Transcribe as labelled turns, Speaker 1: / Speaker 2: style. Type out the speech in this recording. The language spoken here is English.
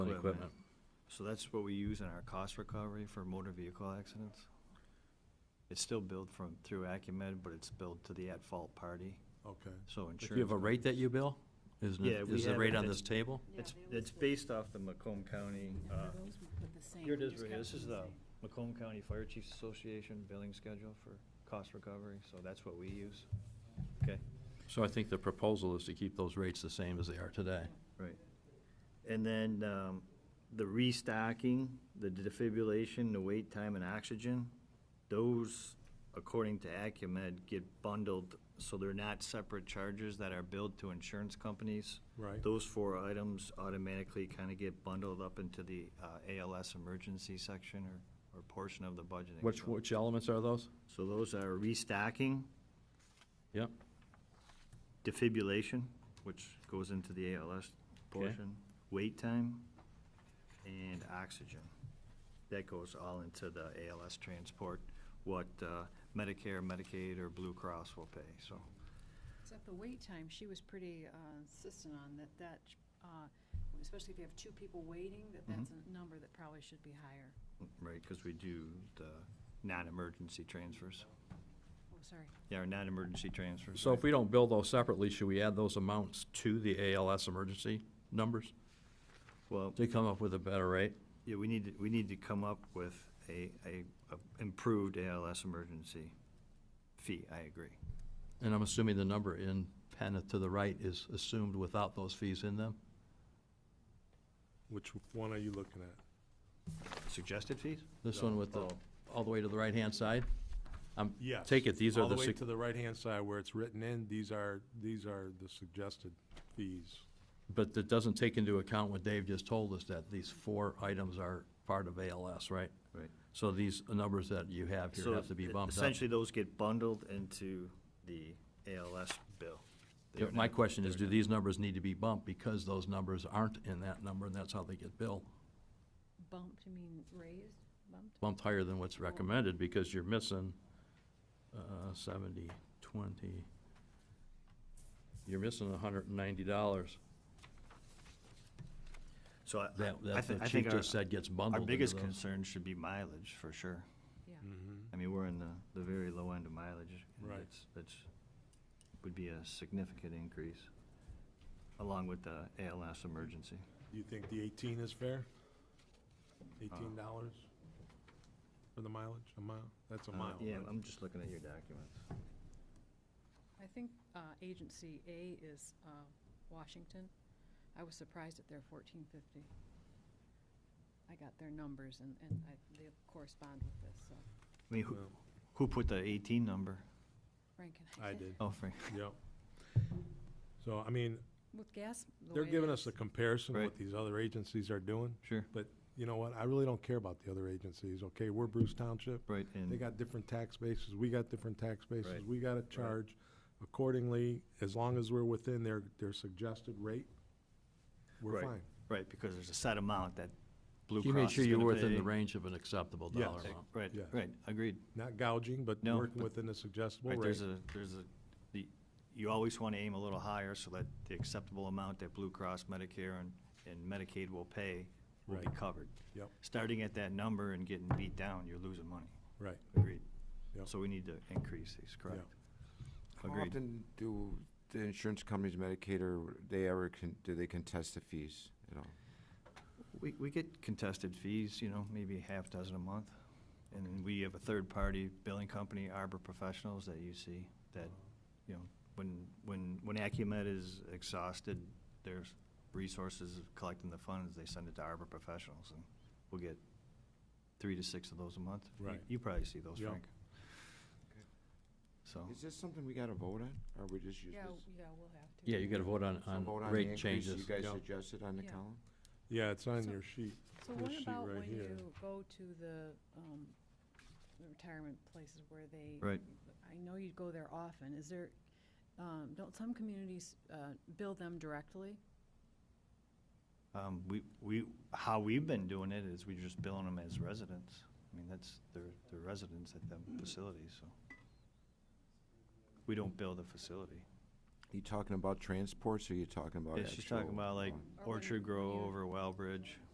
Speaker 1: and
Speaker 2: Equipment.
Speaker 1: equipment.
Speaker 2: So that's what we use in our cost recovery for motor vehicle accidents? It's still billed from, through Acumen, but it's billed to the at-fault party,
Speaker 3: Okay.
Speaker 2: so
Speaker 1: Do
Speaker 2: insurance.
Speaker 1: you have a rate that you bill? Isn't
Speaker 2: Yeah,
Speaker 1: it,
Speaker 2: we
Speaker 1: is the
Speaker 2: have
Speaker 1: rate
Speaker 2: it.
Speaker 1: on this table?
Speaker 2: It's, it's based off the Macomb County, uh, here it is, right here. this is the Macomb County Fire Chiefs Association billing schedule for cost recovery, so that's what we use. Okay,
Speaker 1: So I think the proposal is to keep those rates the same as they are today.
Speaker 2: right. And then, um, the restocking, the defibrillation, the wait time and oxygen, those, according to Acumed, get bundled, so they're not separate charges that are billed to insurance companies.
Speaker 3: Right.
Speaker 2: Those four items automatically kind of get bundled up into the uh, ALS emergency section or, or portion of the budget.
Speaker 1: Which, which elements are those?
Speaker 2: So those are restocking,
Speaker 1: Yep,
Speaker 2: defibrillation, which goes into the ALS portion, wait time, and oxygen. That goes all into the ALS transport, what uh, Medicare, Medicaid, or Blue Cross will pay, so.
Speaker 4: Except the wait time, she was pretty uh, insistent on that, that, uh, especially if you have two people waiting, that that's
Speaker 3: Mm-hmm.
Speaker 4: a number that probably should be higher.
Speaker 2: Right, because we do the non-emergency transfers,
Speaker 4: Oh, sorry.
Speaker 2: yeah, or non-emergency transfers.
Speaker 1: so
Speaker 2: right.
Speaker 1: if we don't bill those separately, should we add those amounts to the ALS emergency numbers
Speaker 2: Well,
Speaker 1: to come up with a better rate?
Speaker 2: yeah, we need, to- we need to come up with a, a a improved ALS emergency fee, I agree.
Speaker 1: And I'm assuming the number in pen to the right is assumed without those fees in them?
Speaker 3: Which one are you looking at?
Speaker 2: Suggested fees?
Speaker 1: This one with the, all the way to the right-hand side? I'm,
Speaker 3: Yes.
Speaker 1: take it, these are
Speaker 3: All
Speaker 1: the,
Speaker 3: the way
Speaker 1: sug-
Speaker 3: to the right-hand side where it's written in, these are, these are the suggested fees.
Speaker 1: but that doesn't take into account what Dave just told us, that these four items are part of ALS, right?
Speaker 2: Right.
Speaker 1: So these numbers that you have
Speaker 2: So
Speaker 1: here have to be
Speaker 2: e-
Speaker 1: bumped up.
Speaker 2: Essentially, those get bundled into the ALS bill.
Speaker 1: Yeah,
Speaker 2: They're
Speaker 1: My
Speaker 2: not-
Speaker 1: question is,
Speaker 2: they're
Speaker 1: do
Speaker 2: not-
Speaker 1: these numbers need to be bumped because those numbers aren't in that number, and that's how they get billed?
Speaker 4: Bumped, you mean raised, bumped?
Speaker 1: Bumped higher than what's recommended because you're missing uh, seventy, twenty. You're missing hundred and ninety dollars.
Speaker 2: So I,
Speaker 1: That,
Speaker 2: I
Speaker 1: that
Speaker 2: thi-
Speaker 1: the
Speaker 2: I
Speaker 1: chief
Speaker 2: think our,
Speaker 1: just said gets
Speaker 2: our
Speaker 1: bundled into
Speaker 2: biggest
Speaker 1: those.
Speaker 2: concern should be mileage, for sure.
Speaker 4: Yeah.
Speaker 3: Mm-hmm.
Speaker 2: I mean, we're in the, the very low end of mileage. and
Speaker 3: Right.
Speaker 2: that's- That's, would be a significant increase, along with the ALS emergency.
Speaker 3: Do you think the eighteen is fair? Eighteen dollars for the mileage, a mile? That's a
Speaker 2: Uh,
Speaker 3: mile,
Speaker 2: Yeah,
Speaker 3: right?
Speaker 2: I'm just looking at your documents.
Speaker 4: I think uh, agency A is uh, Washington. I was surprised at their fourteen fifty. I got their numbers and, and I, they correspond with this, so
Speaker 2: I mean, who,
Speaker 3: Well,
Speaker 2: who put the eighteen number?
Speaker 4: Frank and I.
Speaker 3: I did,
Speaker 2: Oh, Frank.
Speaker 3: yep. So, I mean,
Speaker 4: With gas. the
Speaker 3: they're
Speaker 4: way it
Speaker 3: giving us
Speaker 4: is.
Speaker 3: a comparison of
Speaker 2: Right.
Speaker 3: what these other agencies are doing,
Speaker 2: Sure.
Speaker 3: but you know what? I really don't care about the other agencies, okay? We're Bruce Township.
Speaker 2: Right,
Speaker 3: They
Speaker 2: and,
Speaker 3: got different tax bases, we got different tax bases,
Speaker 2: Right.
Speaker 3: we gotta charge accordingly, as long as we're within their, their suggested rate, we're
Speaker 2: Right.
Speaker 3: fine.
Speaker 2: right, because there's a set amount that Blue Cross
Speaker 1: You made sure
Speaker 2: is
Speaker 1: you
Speaker 2: gonna
Speaker 1: were within
Speaker 2: pay.
Speaker 1: the range of an acceptable
Speaker 3: Yes.
Speaker 1: dollar amount.
Speaker 2: Right,
Speaker 3: Yeah.
Speaker 2: right, agreed.
Speaker 3: Not gouging, but
Speaker 2: No,
Speaker 3: working
Speaker 2: but-
Speaker 3: within the suggestible
Speaker 2: Right,
Speaker 3: rate.
Speaker 2: there's a, there's a, the, you always want to aim a little higher so that the acceptable amount that Blue Cross, Medicare, and, and Medicaid will pay will be
Speaker 3: Right.
Speaker 2: covered.
Speaker 3: Yep,
Speaker 2: Starting at that number and getting beat down, you're losing money.
Speaker 3: right.
Speaker 2: Agreed.
Speaker 3: Yep.
Speaker 2: So we need to increase these, correct?
Speaker 5: How
Speaker 2: Agreed.
Speaker 5: often do the insurance companies, Medicaid, or they ever, con- do they contest the fees at all?
Speaker 2: We, we get contested fees, you know, maybe a half dozen a month. And then we have a third-party billing company, Arbor Professionals, that you see, that, you know, when, when, when Acumet is exhausted, their resources of collecting the funds, they send it to Arbor Professionals, and we'll get three to six of those a month. You-
Speaker 3: Right.
Speaker 2: You probably see those,
Speaker 3: Yeah.
Speaker 2: Frank. So,
Speaker 5: Is this something we gotta vote on, or we just use
Speaker 4: Yeah,
Speaker 5: this?
Speaker 4: yeah, we'll have to.
Speaker 1: Yeah, you gotta vote on,
Speaker 5: So
Speaker 1: on
Speaker 5: vote on the
Speaker 1: rate
Speaker 5: increase
Speaker 1: changes.
Speaker 5: You guys
Speaker 3: Yeah.
Speaker 5: suggested on the
Speaker 4: Yeah.
Speaker 5: column?
Speaker 3: Yeah, it's on
Speaker 4: So-
Speaker 3: your sheet.
Speaker 4: So
Speaker 3: This
Speaker 4: what
Speaker 3: sheet
Speaker 4: about
Speaker 3: right
Speaker 4: when
Speaker 3: here.
Speaker 4: you go to the, um, the retirement places where they?
Speaker 2: Right.
Speaker 4: I know you go there often. Is there, um, don't some communities, uh, bill them directly?
Speaker 2: um, we, we, how we've been doing it is we're just billing them as residents. I mean, that's, they're, they're residents at them facilities, so. We don't bill the facility.
Speaker 5: You talking about transports, or you talking about
Speaker 2: Yeah,
Speaker 5: actual?
Speaker 2: she's talking about like
Speaker 4: Or
Speaker 5: um,
Speaker 4: when
Speaker 2: Orchard Grove
Speaker 4: you-
Speaker 2: or Wellbridge.